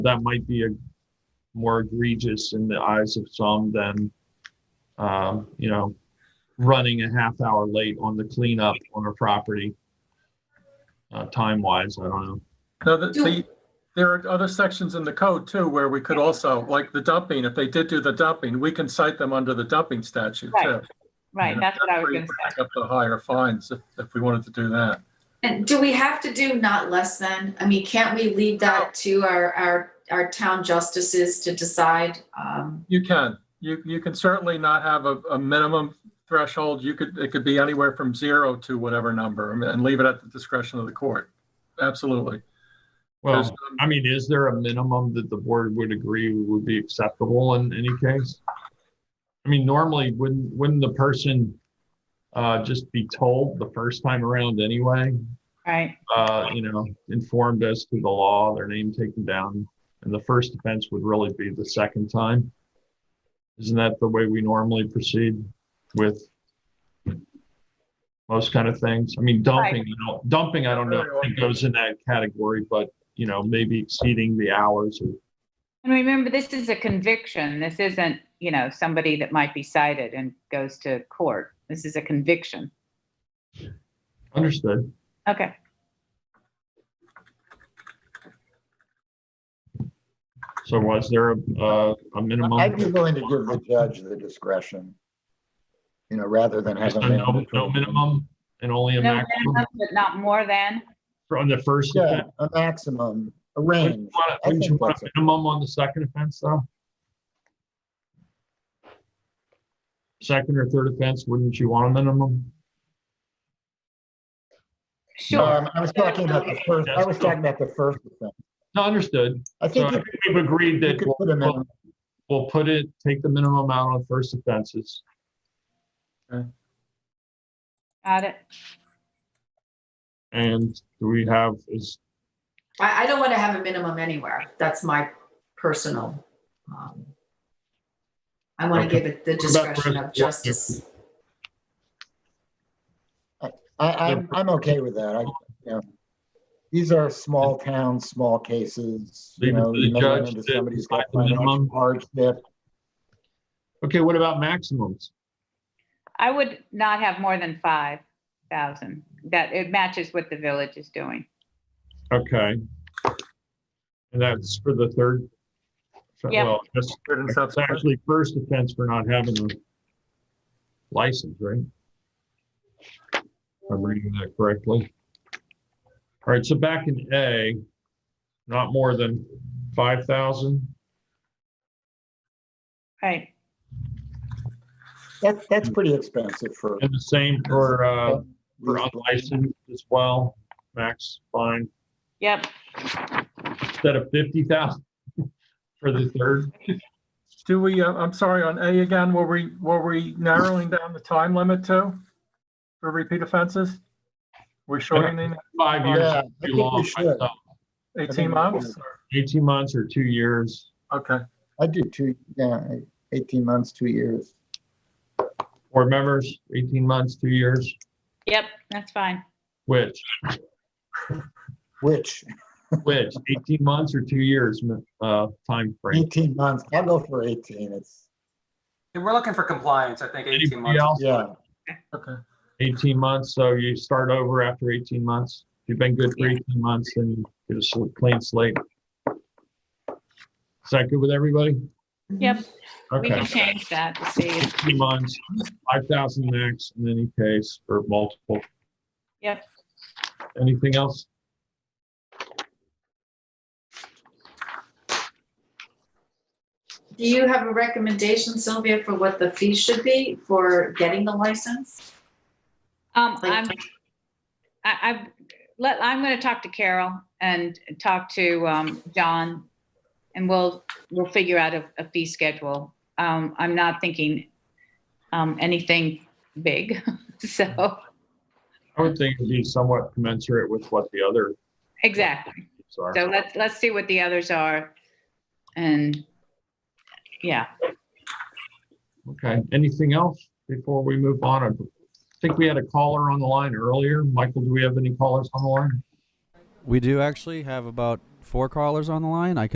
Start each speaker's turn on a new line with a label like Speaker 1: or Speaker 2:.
Speaker 1: that might be a more egregious in the eyes of some than, um, you know, running a half hour late on the cleanup on a property. Uh, time wise, I don't know.
Speaker 2: No, the,
Speaker 3: Do-
Speaker 2: the, there are other sections in the code too, where we could also, like the dumping, if they did do the dumping, we can cite them under the dumping statute
Speaker 4: Right,
Speaker 2: too.
Speaker 4: Right, that's what I was
Speaker 2: Where you
Speaker 4: gonna say.
Speaker 2: pick Up the higher fines if, if we wanted to do that.
Speaker 3: And do we have to do not less than? I mean, can't we leave that to our, our, our town justices to decide? Um,
Speaker 2: You can, you, you can certainly not have a, a minimum threshold. You could, it could be anywhere from zero to whatever number and- and leave it at the discretion of the court. Absolutely. There's,
Speaker 1: Well,
Speaker 2: um,
Speaker 1: I mean, is there a minimum that the board would agree would be acceptable in any case? I mean, normally, wouldn't, wouldn't the person uh, just be told the first time around anyway?
Speaker 4: Right,
Speaker 1: uh, you know, informed as to the law, their name taken down, and the first offense would really be the second time. Isn't that the way we normally proceed with most kind of things? I mean, dumping, you know, dumping, I don't know if it goes in that category, but, you know, maybe exceeding the hours or
Speaker 4: and remember, this is a conviction. This isn't, you know, somebody that might be cited and goes to court. This is a conviction.
Speaker 1: understood.
Speaker 4: Okay,
Speaker 1: So was there a, uh, a minimum?
Speaker 5: I'd be willing to give the judge the discretion, you know, rather than
Speaker 1: Just
Speaker 5: having.
Speaker 1: a no, no minimum and only a
Speaker 4: no
Speaker 1: maximum
Speaker 2: Mm-hmm.
Speaker 4: minimum, but not more than,
Speaker 1: on the first
Speaker 5: Yeah,
Speaker 1: offense?
Speaker 5: a maximum, a
Speaker 1: Wouldn't you
Speaker 5: range.
Speaker 1: want a-
Speaker 5: I
Speaker 1: wouldn't you
Speaker 5: think
Speaker 1: want
Speaker 5: that's
Speaker 1: a
Speaker 5: it.
Speaker 1: minimum on the second offense, though? Second or third offense, wouldn't you want a minimum?
Speaker 4: sure.
Speaker 5: Um, I was talking about the first, I was talking about the first offense.
Speaker 1: No, understood.
Speaker 5: I
Speaker 1: So I
Speaker 5: think you
Speaker 1: think we've agreed
Speaker 5: you
Speaker 1: that
Speaker 5: could
Speaker 1: we'll-
Speaker 5: put a
Speaker 1: we'll,
Speaker 5: minimum,
Speaker 1: we'll put it, take the minimum out on first offenses.
Speaker 4: Got it.
Speaker 1: And do we have, is,
Speaker 3: I, I don't want to have a minimum anywhere. That's my personal. um, I want to
Speaker 1: Okay.
Speaker 3: give it the
Speaker 1: about
Speaker 3: discretion
Speaker 1: rest-
Speaker 3: of justice.
Speaker 5: I, I'm, I'm okay with that. I, you know, these are small towns, small cases, you
Speaker 1: Leave it
Speaker 5: know,
Speaker 1: to
Speaker 5: you
Speaker 1: the
Speaker 5: may run
Speaker 1: judge
Speaker 5: into
Speaker 1: to
Speaker 5: somebody's got
Speaker 1: decide the minimum.
Speaker 5: financial hardship.
Speaker 1: okay, what about maximums?
Speaker 4: I would not have more than 5,000. That, it matches what the village is doing.
Speaker 1: Okay. And that's for the third?
Speaker 4: Yeah.
Speaker 1: Well, that's,
Speaker 2: Third and
Speaker 1: that's
Speaker 2: subsequent.
Speaker 1: actually first offense for not having a license, right? If I'm reading that correctly. All right, so back in A, not more than five thousand.
Speaker 4: Right,
Speaker 5: That's, that's pretty expensive for.
Speaker 1: And the same for, uh, for
Speaker 5: these-
Speaker 1: unlicensed as well, max fine,
Speaker 4: yep,
Speaker 1: instead of fifty thousand for the third.
Speaker 2: Do we, uh, I'm sorry, on A again, were we, were we narrowing down the time limit too? For repeat offenses? We're shortening
Speaker 1: Five years,
Speaker 5: Yeah, I
Speaker 1: too
Speaker 5: think we
Speaker 1: long, I
Speaker 5: should.
Speaker 1: thought.
Speaker 2: it 18 months? or-
Speaker 1: eighteen months or two years.
Speaker 2: Okay.
Speaker 5: I do two, yeah, 18 months, two years.
Speaker 1: Board members, 18 months, two years,
Speaker 4: yep, that's fine.
Speaker 1: which,
Speaker 5: Which
Speaker 1: which, 18 months or two years, uh, time frame.
Speaker 5: 18 months, I'll go for 18. It's,
Speaker 6: And we're looking for compliance, I think 18
Speaker 1: Anybody
Speaker 6: months.
Speaker 1: else?
Speaker 5: yeah.
Speaker 2: Okay.
Speaker 1: 18 months, so you start over after 18 months. If you've been good for
Speaker 4: Yeah.
Speaker 1: 18 months, then you get a sl- clean slate. Is that good with everybody?
Speaker 4: Yep,
Speaker 3: Mm-hmm.
Speaker 4: we
Speaker 1: Okay,
Speaker 4: can change that to see. if-
Speaker 1: 18 months, 5,000 max in any case, or multiple.
Speaker 4: Yep,
Speaker 1: Anything else?
Speaker 3: Do you have a recommendation, Sylvia, for what the fee should be for getting the license?
Speaker 4: um,
Speaker 3: Like-
Speaker 4: I'm, I, I, let, I'm gonna talk to Carol and talk to, um, John. And we'll, we'll figure out a, a fee schedule. Um, I'm not thinking, um, anything big, so,
Speaker 1: I would think it'd be somewhat commensurate with what the other,
Speaker 4: exactly.
Speaker 1: sorry.
Speaker 4: So let's, let's see what the others are. And, yeah,
Speaker 1: Okay, anything else before we move on? I think we had a caller on the line earlier. Michael, do we have any callers on the line?
Speaker 7: We do actually have about four callers on the line. I